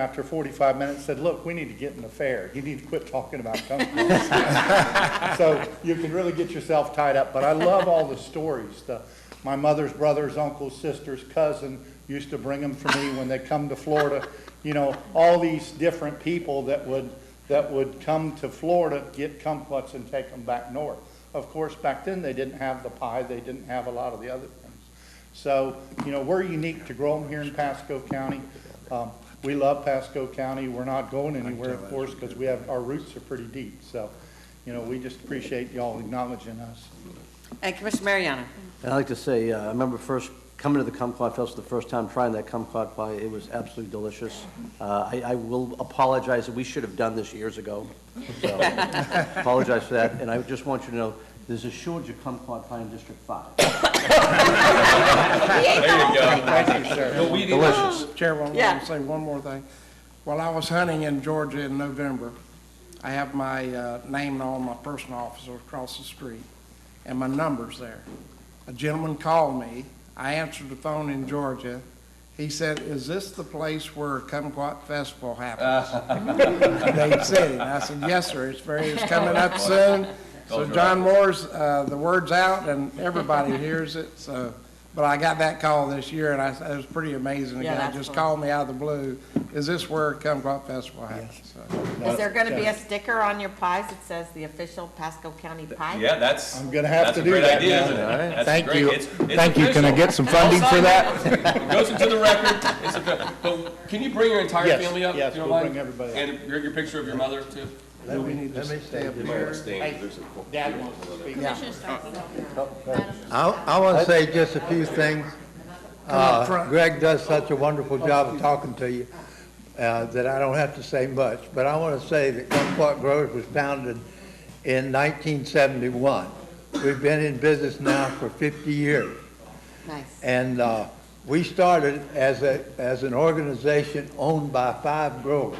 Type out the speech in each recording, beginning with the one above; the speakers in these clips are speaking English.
after forty-five minutes said, look, we need to get in the fair. You need to quit talking about Coke. So you can really get yourself tied up, but I love all the stories. The, my mother's brothers, uncles, sisters, cousin used to bring them for me when they come to Florida. You know, all these different people that would, that would come to Florida, get kumquats and take them back north. Of course, back then, they didn't have the pie, they didn't have a lot of the other things. So, you know, we're unique to Grome here in Pasco County. Um, We love Pasco County. We're not going anywhere, of course, because we have, our roots are pretty deep. So, you know, we just appreciate y'all acknowledging us. And Commissioner Mariano? And I'd like to say, uh, I remember first coming to the kumquat festival the first time, trying that kumquat pie, it was absolutely delicious. Uh, I, I will apologize, we should have done this years ago, so apologize for that. And I just want you to know, there's a shortage of kumquat pie in District Five. Thank you, sir. Delicious. Chairwoman, Yeah. I want to say one more thing. While I was hunting in Georgia in November, I have my uh, name and all my personal officers across the street, and my number's there. A gentleman called me, I answered the phone in Georgia. He said, "Is this the place where Kumquat Festival happens?" They said it, and I said, "Yes, sir, it's very, it's coming up soon." So John Moore's, uh, the word's out, and everybody hears it, so, but I got that call this year, and I, it was pretty amazing. The Yeah, guy that's just cool. called me out of the blue, is this where Kumquat Festival happens? So, Is there going to be a sticker on your pies that says the official Pasco County pie? Yeah, that's. I'm gonna have that's to a do great that idea, now. isn't it? That's Thank great. you. It's- it's Thank you. Can I official. get some funding for that? It goes into the record. It's a, but can you bring your entire Yes, family up? if yes, you don't we'll mind? bring everybody up. And your, your picture of your mother too? Dad wants to speak. I, I want to say just a few things. Uh, Greg does such a wonderful job of talking to you uh, that I don't have to say much, but I want to say that Gulfport Growers was founded in 1971. We've been in business now for 50 years. Nice. And uh, we started as a, as an organization owned by five growers.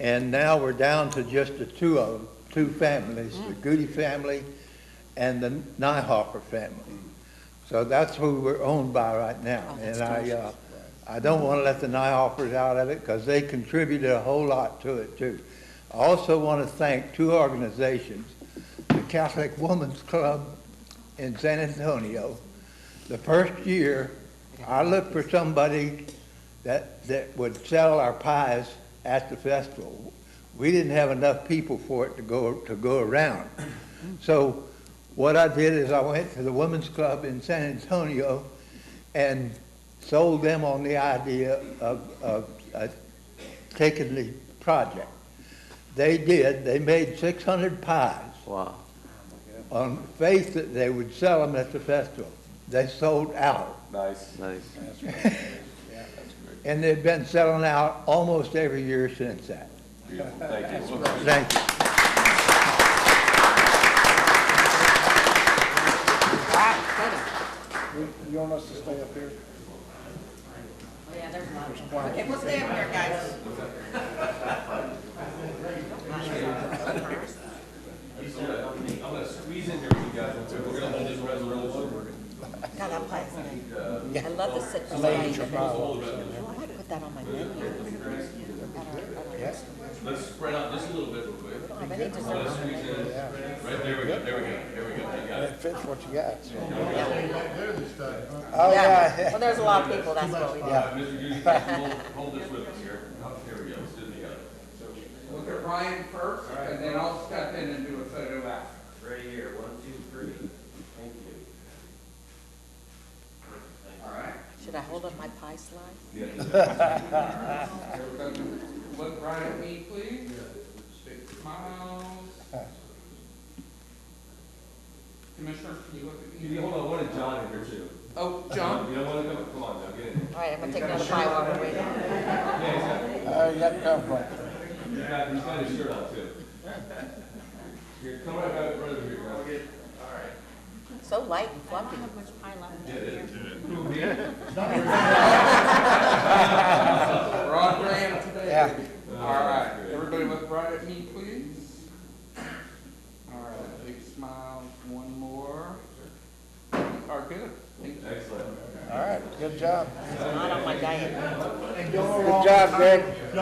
And now we're down to just the two of them, two families, the Mm. Goody family and the Nyhopper family. So that's who we're owned by right now. Oh, that's And I, uh, I don't want to let the Nyhoppers out of it because they contributed a whole lot to it too. I also want to thank two organizations, the Catholic Women's Club in San Antonio. The first year, I looked for somebody that, that would sell our pies at the festival. We didn't have enough people for it to go, to go around. So what I did is I went to the women's club in San Antonio and sold them on the idea of, of uh, taking the project. They did, they made 600 pies Wow. on faith that they would sell them at the festival. They sold out, Nice. Nice. and they've been selling out almost every year since that. Beautiful. Thank you. Thank you. Wow, You want us to stay up here? good. Okay, we'll stay up here, guys. I'm gonna squeeze in here with you guys. We're gonna hold this resolution. God, that pie is good. I love the citrus. I might put that on my menu. At our- at our- Let's spread out just a little bit real quick. Oh, they need dessert. Let's squeeze in. Right, there we go, there we go, there we go. You got Oh, it. It fits what you got, so. Yeah. Well, there's a lot of people, that's what we do. Uh, Mr. Goosey, hold, hold this with us here. Oh, Here we go, let's do it together. Look at Brian first, and then I'll step in and do a photo after. Right here, one, two, three. Thank you. All right? Should I hold up my pie slice? Everybody Look right at me, please. Big smiles. Commissioner, can you look at You me? hold on, one at John in here too. Oh, John? You don't wanna come, come on now, get in. All right, I'm gonna take another pie while we're waiting. Yeah, exactly. Oh, you got to come from. He's got, he's got his shirt on too. Here, come right back, brother, here, right? So light and fluffy. We're on brand today. Yeah. All right, everybody look right at me, please. All right, big smiles, one more. Are good. Thank you. Excellent. All right, good job. Not on my diet. Good job, Greg.